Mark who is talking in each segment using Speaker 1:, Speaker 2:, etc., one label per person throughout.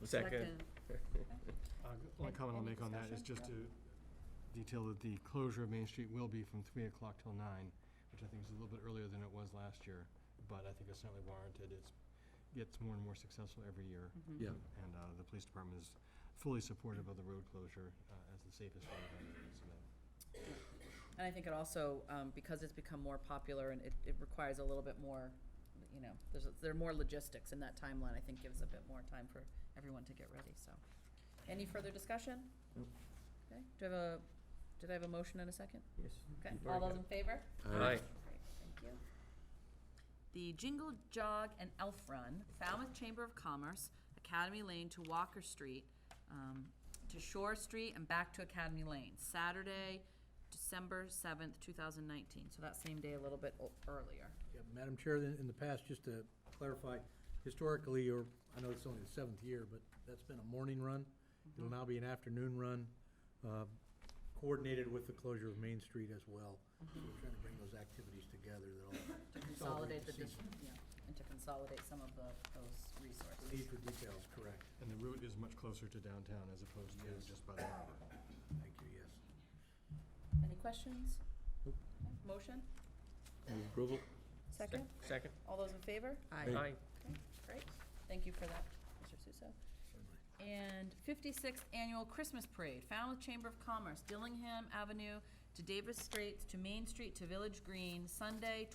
Speaker 1: Was that good?
Speaker 2: Selectmen.
Speaker 3: Uh, Only comment I'll
Speaker 2: Any
Speaker 3: make on that is
Speaker 2: discussion?
Speaker 3: just to detail that the closure of Main Street will be from three o'clock till nine, which I think is a little bit earlier than it was last year, but I think it's certainly warranted. It's, gets more and more successful every year.
Speaker 2: Mhm.
Speaker 1: Yeah.
Speaker 3: And uh, the police department is fully supportive of the road closure uh, as the safest way to handle this event.
Speaker 2: And I think it also, um, because it's become more popular and it, it requires a little bit more, you know, there's, a- there are more logistics and that timeline, I think, gives a bit more time for everyone to get ready, so. Any further discussion?
Speaker 1: Nope.
Speaker 2: Okay, do I have a, did I have a motion and a second?
Speaker 1: Yes.
Speaker 2: Okay,
Speaker 1: You've
Speaker 2: all
Speaker 1: already
Speaker 2: those in favor?
Speaker 1: got it. Aye.
Speaker 2: Great, thank you. The Jingle Jog and Elf Run, Falmouth Chamber of Commerce, Academy Lane to Walker Street, um, to Shore Street and back to Academy Lane, Saturday, December seventh, two thousand nineteen, so that same day a little bit o- earlier.
Speaker 4: Yeah, Madam Chair, in in the past, just to clarify, historically, or I know it's only the seventh year, but that's been a morning run. It'll now be an afternoon run, uh, coordinated with the closure of Main Street as well. So We're trying to bring those activities together that all,
Speaker 2: To consolidate the,
Speaker 4: the
Speaker 2: dis- yeah, and to consolidate some of the, those resources.
Speaker 4: the need for details, correct.
Speaker 3: And the route is much closer to downtown as opposed to just by the harbor.
Speaker 4: Thank you, yes.
Speaker 2: Any questions? Okay, Motion?
Speaker 1: Move approval?
Speaker 2: Second?
Speaker 1: Second?
Speaker 2: All those in favor?
Speaker 1: Aye.
Speaker 2: Okay, Great, thank you for that, Mr. Suso. And 56th Annual Christmas Parade, Falmouth Chamber of Commerce, Dillingham Avenue to Davis Straits to Main Street to Village Green, Sunday,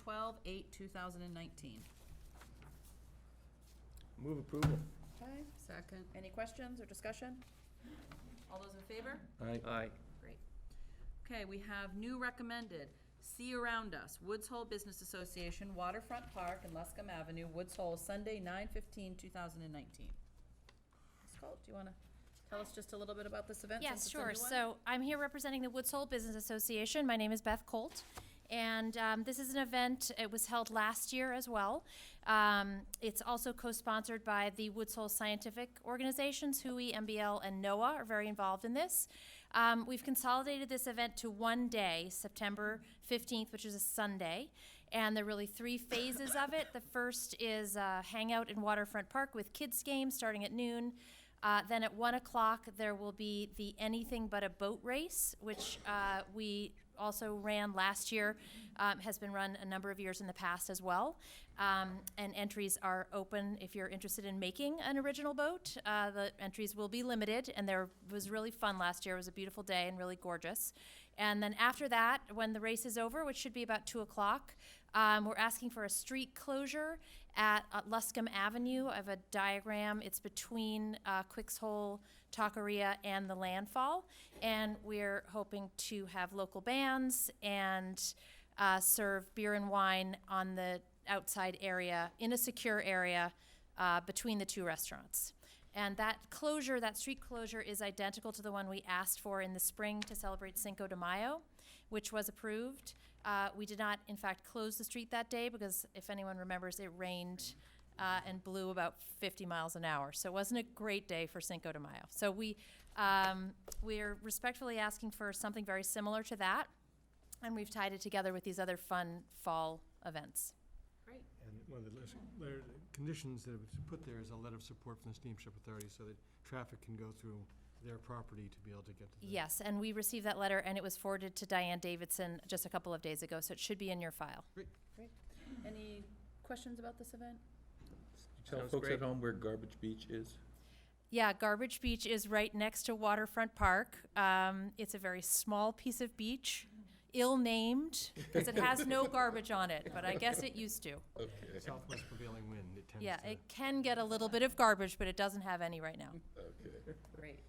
Speaker 2: 12/8/2019.
Speaker 1: Move approval?
Speaker 2: Okay, second. Any questions or discussion? All those in favor?
Speaker 1: Aye. Aye.
Speaker 2: Great. Okay, we have new recommended, See Around Us, Woods Hole Business Association, Waterfront Park and Luscombe Avenue, Woods Hole, Sunday, 9 2019 Ms. Colt, do you want to tell us just a little bit about this event? since
Speaker 5: Yes,
Speaker 2: it's a
Speaker 5: sure.
Speaker 2: new one?
Speaker 5: So I'm here representing the Woods Hole Business Association. My name is Beth Colt. And um, this is an event, it was held last year as well. Um, It's also co-sponsored by the Woods Hole Scientific Organizations, HUI, MBL, and NOAA are very involved in this. Um, We've consolidated this event to one day, September 15th, which is a Sunday. And there are really three phases of it. The first is uh, hangout in Waterfront Park with kids' games starting at noon. Uh, then at one o'clock, there will be the Anything But a Boat Race, which uh, we also ran last year, um, has been run a number of years in the past as well. Um, and entries are open if you're interested in making an original boat. Uh, the entries will be limited, and there was really fun last year. It was a beautiful day and really gorgeous. And then after that, when the race is over, which should be about two o'clock, um, we're asking for a street closure at uh, Luscombe Avenue. I have a diagram. It's between uh, Quicks Hole, Taqueria, and the landfall. And we're hoping to have local bands and uh, serve beer and wine on the outside area, in a secure area uh, between the two restaurants. And that closure, that street closure, is identical to the one we asked for in the spring to celebrate Cinco de Mayo, which was approved. Uh, we did not, in fact, close the street that day because, if anyone remembers, it rained uh, and blew about 50 miles an hour. So it wasn't a great day for Cinco de Mayo. So we um, we're respectfully asking for something very similar to that, and we've tied it together with these other fun fall events.
Speaker 2: Great,
Speaker 3: And one of the less- there- conditions that was put there is a letter of support from the steamship authority so that traffic can go through their property to be able to get to the.
Speaker 5: Yes, and we received that letter, and it was forwarded to Diane Davidson just a couple of days ago, so it should be in your file.
Speaker 2: great. Any questions about this event?
Speaker 6: Tell
Speaker 1: Sounds
Speaker 6: folks
Speaker 1: great.
Speaker 6: at home where Garbage Beach is.
Speaker 5: Yeah, Garbage Beach is right next to Waterfront Park. Um, it's a very small piece of beach, ill-named, because it has no garbage on it, but I guess it used to.
Speaker 6: Okay,
Speaker 3: Southwest prevailing wind, it tends to.
Speaker 5: Yeah, it can get a little bit of garbage, but it doesn't have any right now.
Speaker 6: okay.
Speaker 2: Great.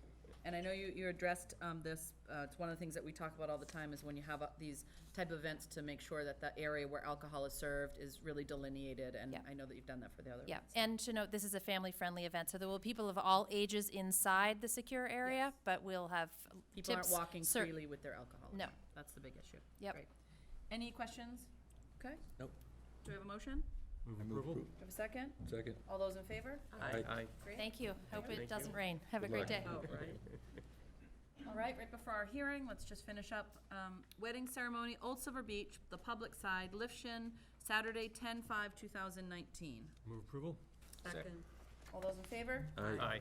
Speaker 2: And I know you, you addressed um, this, uh, it's one of the things that we talk about all the time is when you have uh, these type of events to make sure that the area where alcohol is served is really delineated, and
Speaker 5: Yeah.
Speaker 2: I know that you've done that for the other
Speaker 5: Yeah,
Speaker 2: events.
Speaker 5: and to note, this is a family-friendly event, so there will be people of all ages inside the secure area, but we'll have
Speaker 2: People aren't
Speaker 5: tips,
Speaker 2: walking
Speaker 5: cer-
Speaker 2: freely with their alcohol.
Speaker 5: No.
Speaker 2: That's the big issue.
Speaker 5: Yep.
Speaker 2: Great. Any questions? Okay,
Speaker 6: Nope.
Speaker 2: do we have a motion?
Speaker 3: Move
Speaker 6: I move
Speaker 3: approval?
Speaker 2: Do we have a second?
Speaker 6: appro- Second.
Speaker 2: All those in favor?
Speaker 1: Aye. Aye.
Speaker 2: Great.
Speaker 5: Thank you. Hope
Speaker 1: Thank you.
Speaker 5: it doesn't rain. Have a
Speaker 6: Good
Speaker 5: great
Speaker 6: luck.
Speaker 5: day.
Speaker 2: Oh, right. All right, right before our hearing, let's just finish up. Um, Wedding ceremony, Old Silver Beach, the public side, Lifshin, Saturday, 10/5/2019.
Speaker 3: Move approval?
Speaker 1: Second.
Speaker 2: All those in favor?
Speaker 1: Aye.